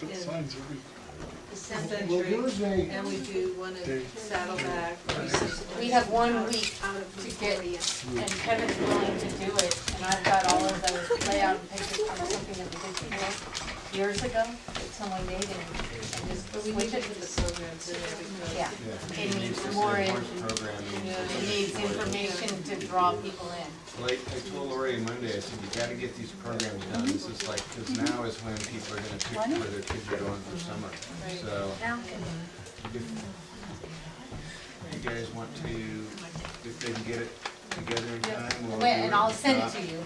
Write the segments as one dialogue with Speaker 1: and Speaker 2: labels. Speaker 1: put signs every
Speaker 2: the
Speaker 3: Well,
Speaker 2: Century,
Speaker 3: there is a,
Speaker 2: and we do one
Speaker 1: Day.
Speaker 2: at Saddleback. we just-
Speaker 4: We have one week
Speaker 5: out of
Speaker 4: to get,
Speaker 5: Victoria.
Speaker 4: and Kevin's willing to do it, and I've got all of those layout and pictures from something that we did here years ago, that someone made and, and just
Speaker 2: But we need
Speaker 4: switch
Speaker 2: to
Speaker 4: it
Speaker 2: put the programs in there because.
Speaker 4: Yeah, it needs more, in-
Speaker 6: programming.
Speaker 4: it needs information to draw people in.
Speaker 6: Like, I told Lori Monday, I said, you gotta get these programs done, this is like, because now is when people are gonna pick where their kids are going for summer. So, if you guys want to, if they can get it together in time, we'll do it.
Speaker 4: Wait, And I'll send it
Speaker 6: If
Speaker 4: to
Speaker 6: not,
Speaker 4: you,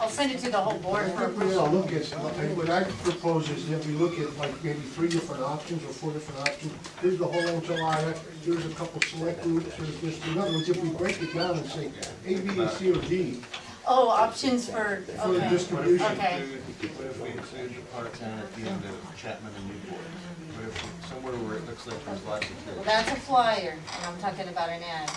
Speaker 4: I'll send it to the whole
Speaker 3: I
Speaker 4: board for
Speaker 3: think we ought to
Speaker 4: approval.
Speaker 3: look at, like, what I propose is that we look at like maybe three different options or four different options. Here's the whole enchilada, here's a couple select groups, there's this, in other words, if we break it down and say A, B, and C, or D
Speaker 4: Oh, options for,
Speaker 3: for the
Speaker 4: okay,
Speaker 3: distribution.
Speaker 4: Okay.
Speaker 6: What if we include, what if we include the part-time at the end of Chapman and Newport? What if, somewhere where it looks like there's lots of
Speaker 4: well,
Speaker 6: kids.
Speaker 4: that's a flyer, and I'm talking about an ad.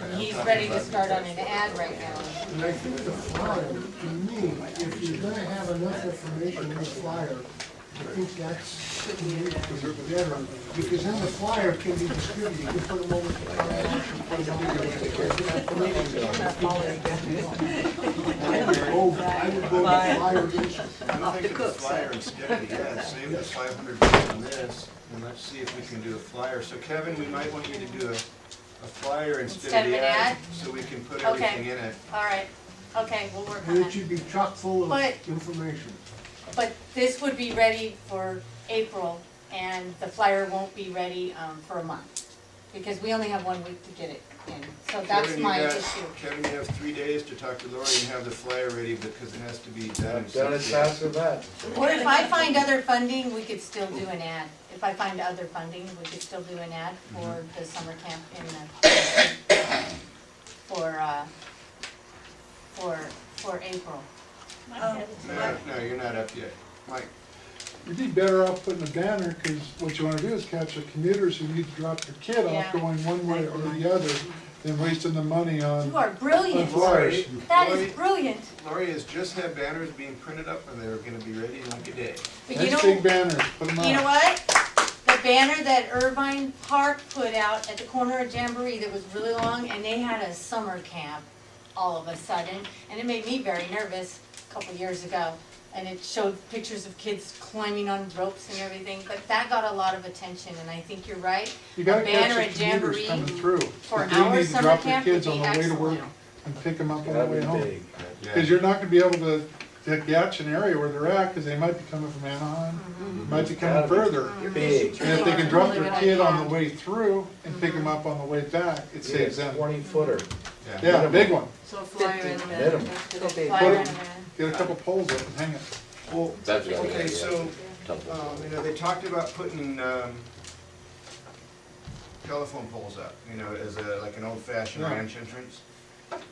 Speaker 4: And He's ready to start on an ad right now.
Speaker 3: And I think the flyer, to me, if you're gonna have enough information in the flyer, I think that's better, because then the flyer can be distributed, you can put them over the Oh, I would go with flyer.
Speaker 6: I'm thinking the flyer instead, yeah, save the five hundred bucks on this, and let's see if we can do a flyer. So Kevin, we might want you to do a, a flyer instead of the ad, so we can put
Speaker 4: Okay.
Speaker 6: everything in it.
Speaker 4: All right, okay, we'll work on
Speaker 3: And it
Speaker 4: that.
Speaker 3: should be chock full of
Speaker 4: But-
Speaker 3: information.
Speaker 4: But this would be ready for April, and the flyer won't be ready um, for a month, because we only have one week to get it in. So that's
Speaker 6: Kevin, you
Speaker 4: my
Speaker 6: got-
Speaker 4: issue.
Speaker 6: Kevin, you have three days to talk to Lori and have the flyer ready, because it has to be done.
Speaker 7: Done as fast as that.
Speaker 4: Or if I find other funding, we could still do an ad. If I find other funding, we could still do an ad for the summer camp in the, for, uh, for, for April.
Speaker 6: No, no, you're not up yet. Mike,
Speaker 1: You'd be better off putting a banner, because what you wanna do is capture commuters who need to drop their kid
Speaker 4: Yeah.
Speaker 1: off going one way or the other, than wasting the money on.
Speaker 4: You are brilliant.
Speaker 1: Flowers.
Speaker 4: That is brilliant.
Speaker 6: Lori has just had banners being printed up, and they're gonna be ready in like a day.
Speaker 4: But you
Speaker 1: Nice
Speaker 4: don't,
Speaker 1: big banners, put them
Speaker 4: You know
Speaker 1: up.
Speaker 4: what? The banner that Irvine Park put out at the corner of Jamboree that was really long, and they had a summer camp all of a sudden, and it made me very nervous a couple years ago. And it showed pictures of kids climbing on ropes and everything, but that got a lot of attention, and I think you're right.
Speaker 1: You gotta
Speaker 4: A banner
Speaker 1: catch
Speaker 4: at
Speaker 1: the commuters
Speaker 4: Jamboree
Speaker 1: coming through.
Speaker 4: for
Speaker 1: They do
Speaker 4: our
Speaker 1: need to
Speaker 4: summer
Speaker 1: drop their
Speaker 4: camp would
Speaker 1: kids on
Speaker 4: be
Speaker 1: the way to work
Speaker 4: excellent.
Speaker 1: And pick them up on the
Speaker 7: That'd
Speaker 1: way
Speaker 7: be
Speaker 1: home.
Speaker 7: big.
Speaker 1: Because you're not gonna be able to, to catch an area where they're at, because they might be coming from
Speaker 4: Mm-hmm.
Speaker 1: Anaheim, might be coming
Speaker 7: That'd be
Speaker 1: further.
Speaker 7: Big.
Speaker 1: And if they can
Speaker 4: Really
Speaker 1: drop their
Speaker 4: good
Speaker 1: kid on
Speaker 4: idea.
Speaker 1: the way through and pick
Speaker 4: Mm-hmm.
Speaker 1: them up on the way back, it saves them.
Speaker 7: Twenty footer.
Speaker 1: Yeah,
Speaker 7: minimum.
Speaker 1: big one.
Speaker 2: So flyer in the.
Speaker 7: Minimum.
Speaker 2: that's good.
Speaker 4: Flyer
Speaker 1: Put
Speaker 4: and a
Speaker 1: 'em-
Speaker 4: banner.
Speaker 1: Get a couple poles up and hang it.
Speaker 6: Well,
Speaker 8: That's what I
Speaker 6: okay,
Speaker 8: mean,
Speaker 6: so,
Speaker 8: yeah.
Speaker 6: um, you know, they talked about putting, um, telephone poles up, you know, as a, like an old-fashioned
Speaker 1: Yeah.
Speaker 6: ranch entrance.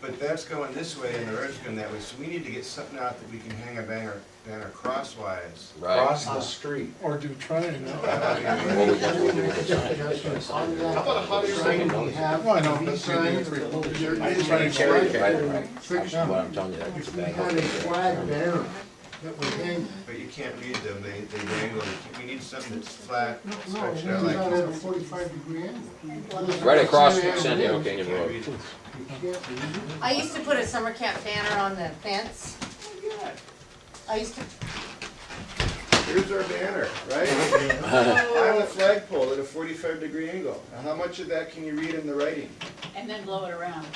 Speaker 6: But that's going this way and the road's going that way, so we need to get something out that we can hang a banner, banner crosswise.
Speaker 8: Right.
Speaker 1: Ah.
Speaker 7: Across the street.
Speaker 1: Or do triangle.
Speaker 8: What we got, what we got.
Speaker 3: On that sign, we have
Speaker 1: Well, I know,
Speaker 3: the
Speaker 1: that's
Speaker 3: sign,
Speaker 1: gonna be pretty cool.
Speaker 3: there
Speaker 1: I
Speaker 3: is
Speaker 1: just try
Speaker 3: a
Speaker 1: to
Speaker 8: Right,
Speaker 3: flag
Speaker 8: right,
Speaker 3: banner.
Speaker 8: right. That's what I'm telling you, that gets
Speaker 3: We
Speaker 8: bad.
Speaker 3: had a flag banner that we hang.
Speaker 6: But you can't read them, they, they dangle, we need something that's flat,
Speaker 3: No, it
Speaker 6: stretched out
Speaker 3: hangs
Speaker 6: like.
Speaker 3: out at a
Speaker 6: this.
Speaker 3: forty-five degree angle.
Speaker 8: Right across from San Diego Canyon
Speaker 6: Can't
Speaker 8: Road.
Speaker 6: read it.
Speaker 3: You can't read it.
Speaker 4: uh, I used to put a summer camp banner on the fence. I used to
Speaker 6: Here's our banner, right? I have a flagpole at a forty-five degree angle. Now, how much of that can you read in the writing?
Speaker 4: And then blow it around.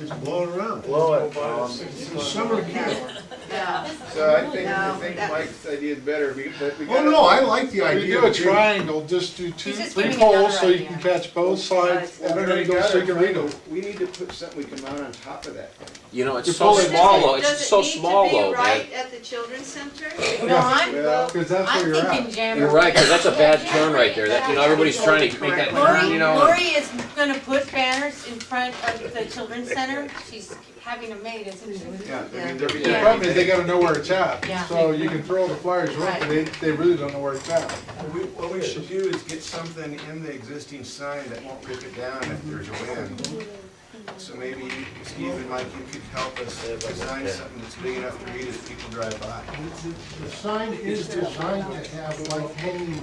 Speaker 3: It's blowing around.
Speaker 7: Blow it.
Speaker 3: It's a summer camp.
Speaker 2: Yeah.
Speaker 6: So I think, I
Speaker 2: No,
Speaker 6: think
Speaker 2: that-
Speaker 6: Mike's idea is better, we- but we
Speaker 3: Oh,
Speaker 6: gotta.
Speaker 3: no, I like the
Speaker 1: If you
Speaker 3: idea.
Speaker 1: do a
Speaker 3: of-
Speaker 1: triangle, just do two,
Speaker 4: He's just
Speaker 1: three
Speaker 4: giving another
Speaker 1: poles so you
Speaker 4: idea.
Speaker 1: can catch both sides
Speaker 2: Both
Speaker 1: at
Speaker 2: sides.
Speaker 1: an
Speaker 6: Already
Speaker 1: angle
Speaker 6: got
Speaker 1: so
Speaker 6: a
Speaker 1: you can read them.
Speaker 6: triangle. We need to put something we can mount on top of that.
Speaker 8: You know, it's
Speaker 1: You're
Speaker 8: so
Speaker 1: pulling
Speaker 8: small though,
Speaker 2: Does it-
Speaker 8: it's so small
Speaker 2: Does it need to
Speaker 8: though,
Speaker 2: be
Speaker 8: man.
Speaker 2: right at the children's center?
Speaker 4: No, I'm,
Speaker 6: Well,
Speaker 1: Because that's
Speaker 4: I'm
Speaker 1: where you're at.
Speaker 4: thinking Jamboree.
Speaker 8: You're right, cause that's a bad turn right there, that, you know, everybody's trying to make that turn,
Speaker 4: Lori,
Speaker 8: you know.
Speaker 4: Lori is gonna put banners in front of the children's center, she's having them made, isn't she?
Speaker 6: Yeah, I mean,
Speaker 1: The
Speaker 6: they're.
Speaker 1: problem is they gotta know where it's at.
Speaker 4: Yeah.
Speaker 1: So you can throw the flyers around, but they, they really don't know where it's at.
Speaker 6: What we, what we should do is get something in the existing sign that won't rip it down if there's a wind. So maybe Steve and Mike, you could help us design something that's big enough to read as people drive by.
Speaker 3: The- The the sign is designed to have like hanging